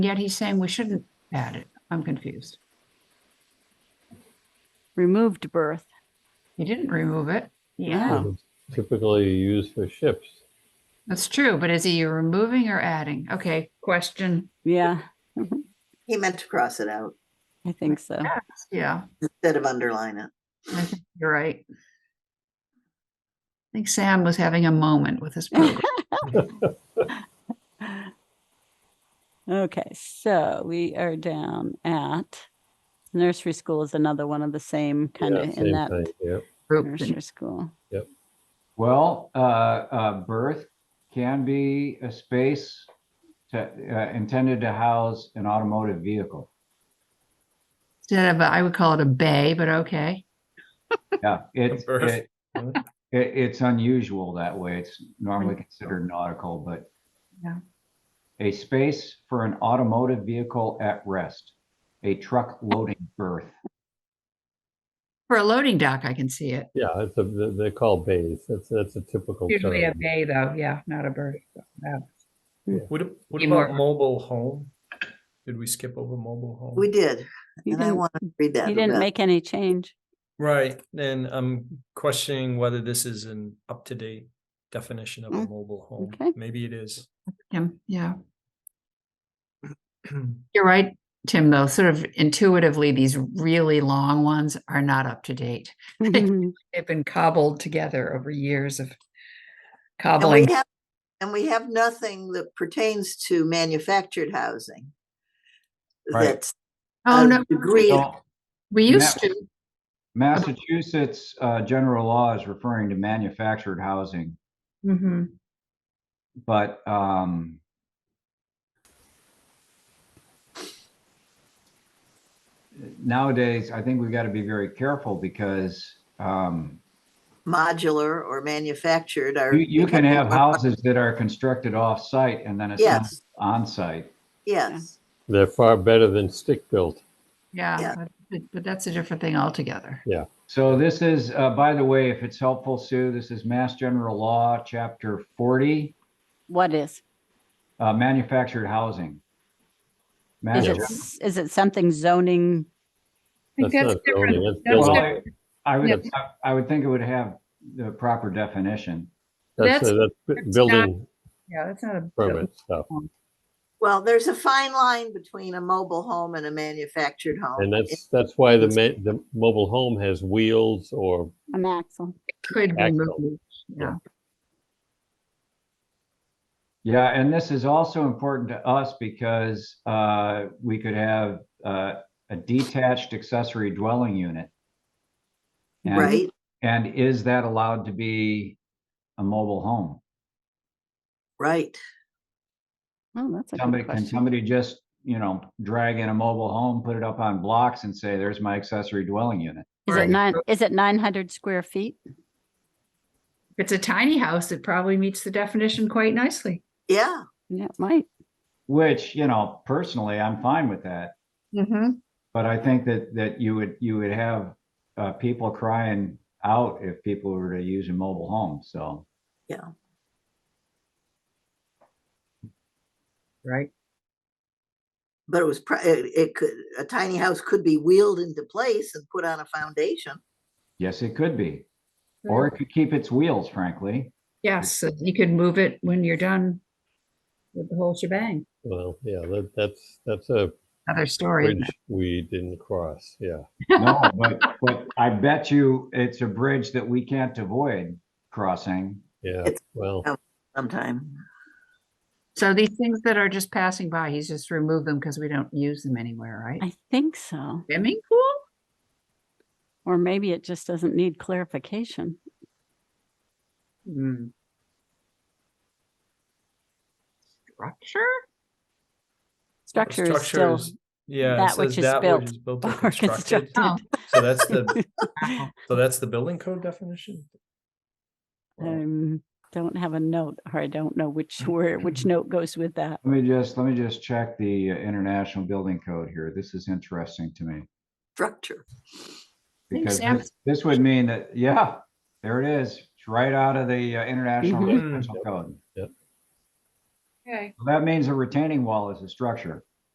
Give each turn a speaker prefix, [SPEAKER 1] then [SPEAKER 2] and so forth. [SPEAKER 1] Yet he's saying we shouldn't add it. I'm confused.
[SPEAKER 2] removed birth.
[SPEAKER 1] He didn't remove it. Oh.
[SPEAKER 2] Yeah.
[SPEAKER 3] typically used for ships.
[SPEAKER 1] That's true, but is he removing or adding? Okay, question.
[SPEAKER 2] Yeah,
[SPEAKER 4] He meant to cross it out
[SPEAKER 2] I think so.
[SPEAKER 1] Yeah,
[SPEAKER 4] instead of underline it.
[SPEAKER 1] I think you're right. I think Sam was having a moment with his program.
[SPEAKER 2] Okay, so we are down at nursery school is another one of the same kind
[SPEAKER 3] Yeah,
[SPEAKER 2] of in
[SPEAKER 3] same
[SPEAKER 2] that
[SPEAKER 3] thing, yeah.
[SPEAKER 1] group.
[SPEAKER 2] nursery school.
[SPEAKER 5] Well, uh, uh, birth can be a space to, uh, intended to house an automotive vehicle.
[SPEAKER 1] Instead of, a- I would call it a bay, but okay.
[SPEAKER 5] Yeah, it,
[SPEAKER 6] Birth.
[SPEAKER 5] it, it, it's unusual that way. It's normally considered nautical, but
[SPEAKER 1] Yeah.
[SPEAKER 5] a space for an automotive vehicle at rest, a truck loading berth.
[SPEAKER 1] For a loading dock, I can see it.
[SPEAKER 3] Yeah, it's a, they- they're called bays. That's, that's a typical
[SPEAKER 1] Usually a
[SPEAKER 3] term.
[SPEAKER 1] bay though, yeah, not a bird. No.
[SPEAKER 6] What, a- what
[SPEAKER 1] Be
[SPEAKER 6] about
[SPEAKER 1] more-
[SPEAKER 6] mobile home? Did we skip over mobile home?
[SPEAKER 4] We
[SPEAKER 2] Oh.
[SPEAKER 4] did,
[SPEAKER 2] You
[SPEAKER 4] and I
[SPEAKER 2] didn't,
[SPEAKER 4] want to read that.
[SPEAKER 2] you didn't
[SPEAKER 4] about-
[SPEAKER 2] make any change.
[SPEAKER 6] Right, and I'm questioning whether this is an up-to-date definition of a
[SPEAKER 2] Mm,
[SPEAKER 6] mobile home.
[SPEAKER 2] okay.
[SPEAKER 6] Maybe it is.
[SPEAKER 1] Tim, yeah. You're right, Tim, though, sort of intuitively, these really long ones are not up to date.
[SPEAKER 2] Mhm.
[SPEAKER 1] they've been cobbled together over years of
[SPEAKER 4] And we
[SPEAKER 1] cobbling.
[SPEAKER 4] have, and we have nothing that pertains to manufactured housing.
[SPEAKER 5] Right.
[SPEAKER 4] That's
[SPEAKER 1] Oh,
[SPEAKER 4] a
[SPEAKER 1] no,
[SPEAKER 4] degree,
[SPEAKER 5] So
[SPEAKER 1] we
[SPEAKER 5] Yeah.
[SPEAKER 1] used to.
[SPEAKER 5] Massachusetts, uh, general law is referring to manufactured housing.
[SPEAKER 1] Mhm.
[SPEAKER 5] but um nowadays i think we've got to be very careful because um
[SPEAKER 4] modular or manufactured are.
[SPEAKER 5] you, you can have
[SPEAKER 4] becoming-
[SPEAKER 5] houses that are constructed off-site and then assembled
[SPEAKER 4] Yes,
[SPEAKER 5] on-site
[SPEAKER 4] yes.
[SPEAKER 3] They're far better than stick-built.
[SPEAKER 1] Yeah,
[SPEAKER 4] Yeah.
[SPEAKER 1] but- but, but that's a different thing altogether.
[SPEAKER 5] so this is uh, by the way if it's helpful sue this is mass general law chapter 40
[SPEAKER 2] What is?
[SPEAKER 5] uh, manufactured housing Mass
[SPEAKER 2] Is it,
[SPEAKER 5] Gen-
[SPEAKER 2] s- is it something zoning?
[SPEAKER 1] I think
[SPEAKER 3] That's
[SPEAKER 1] that's
[SPEAKER 3] not building,
[SPEAKER 1] different.
[SPEAKER 3] that's
[SPEAKER 1] That's
[SPEAKER 5] well,
[SPEAKER 3] building.
[SPEAKER 5] I, I would
[SPEAKER 3] That's-
[SPEAKER 5] I- I would think it would have the proper definition
[SPEAKER 3] That's,
[SPEAKER 1] that's-
[SPEAKER 3] uh, that's
[SPEAKER 1] that's
[SPEAKER 3] bu- building
[SPEAKER 1] Yeah, that's not a.
[SPEAKER 3] permit stuff.
[SPEAKER 4] Well, there's a fine line between a mobile home and a manufactured home.
[SPEAKER 3] And
[SPEAKER 4] It-
[SPEAKER 3] that's, that's why the ma, the mobile home has wheels or,
[SPEAKER 2] An axle.
[SPEAKER 1] Could be
[SPEAKER 3] Axle.
[SPEAKER 1] moved, yeah.
[SPEAKER 5] Yeah, and this is also important to us because uh, we could have uh, a detached accessory dwelling unit. And-
[SPEAKER 4] Right?
[SPEAKER 5] And is that allowed to be a mobile home?
[SPEAKER 4] Right.
[SPEAKER 2] Oh, that's a
[SPEAKER 5] Somebody,
[SPEAKER 2] good
[SPEAKER 5] can
[SPEAKER 2] question.
[SPEAKER 5] somebody just, you know, drag in a mobile home, put it up on blocks and say, there's my accessory dwelling unit?
[SPEAKER 2] Is
[SPEAKER 1] Right.
[SPEAKER 2] it nine, is it 900 square feet?
[SPEAKER 1] If it's a tiny house, it probably meets the definition quite nicely.
[SPEAKER 4] Yeah.
[SPEAKER 2] Yeah, it might.
[SPEAKER 5] Which, you know, personally, I'm fine with that.
[SPEAKER 2] Mm-hmm.
[SPEAKER 5] But I think that, that you would, you would have uh, people crying out if people were to use a mobile home, so.
[SPEAKER 1] Right.
[SPEAKER 4] But it was, pri- it it could, a tiny house could be wheeled into place and put on a foundation.
[SPEAKER 5] Yes, it could be.
[SPEAKER 1] Hmm.
[SPEAKER 5] Or it could keep its wheels, frankly.
[SPEAKER 1] Yes, so you could move it when you're done with the whole shebang.
[SPEAKER 3] well, yeah, that, that's, that's a
[SPEAKER 1] Other story. isn't
[SPEAKER 3] bridge we didn't cross, yeah.
[SPEAKER 5] No, but, but I bet you it's a bridge that we can't avoid crossing.
[SPEAKER 3] Yeah,
[SPEAKER 4] It's-
[SPEAKER 3] well,
[SPEAKER 4] Sometime.
[SPEAKER 1] it? So these things that are just passing by, he's just removed them because we don't use them anywhere, right?
[SPEAKER 2] I think so.
[SPEAKER 1] Swimming pool?
[SPEAKER 2] Or maybe it just doesn't need clarification.
[SPEAKER 1] Hmm. Structure?
[SPEAKER 2] Structure is
[SPEAKER 6] Structure
[SPEAKER 2] still
[SPEAKER 6] is, yeah, it
[SPEAKER 2] that which
[SPEAKER 6] says
[SPEAKER 2] is
[SPEAKER 6] that
[SPEAKER 2] built
[SPEAKER 6] which is built or
[SPEAKER 2] or
[SPEAKER 6] constructed.
[SPEAKER 1] Oh.
[SPEAKER 2] constructed.
[SPEAKER 6] So that's the, so that's the building code definition? Well,
[SPEAKER 2] Um, don't have a note, or I don't know which where which note goes with that.
[SPEAKER 5] Let me just, let me just check the uh, International Building Code here. This is interesting to me.
[SPEAKER 4] Structure.
[SPEAKER 1] think
[SPEAKER 5] Because
[SPEAKER 1] Sam-
[SPEAKER 5] this- this would mean that, yeah, there it is. It's right out of the uh, International
[SPEAKER 2] Mhm.
[SPEAKER 5] Residential Code.
[SPEAKER 1] Okay.
[SPEAKER 5] That means a retaining wall is a structure.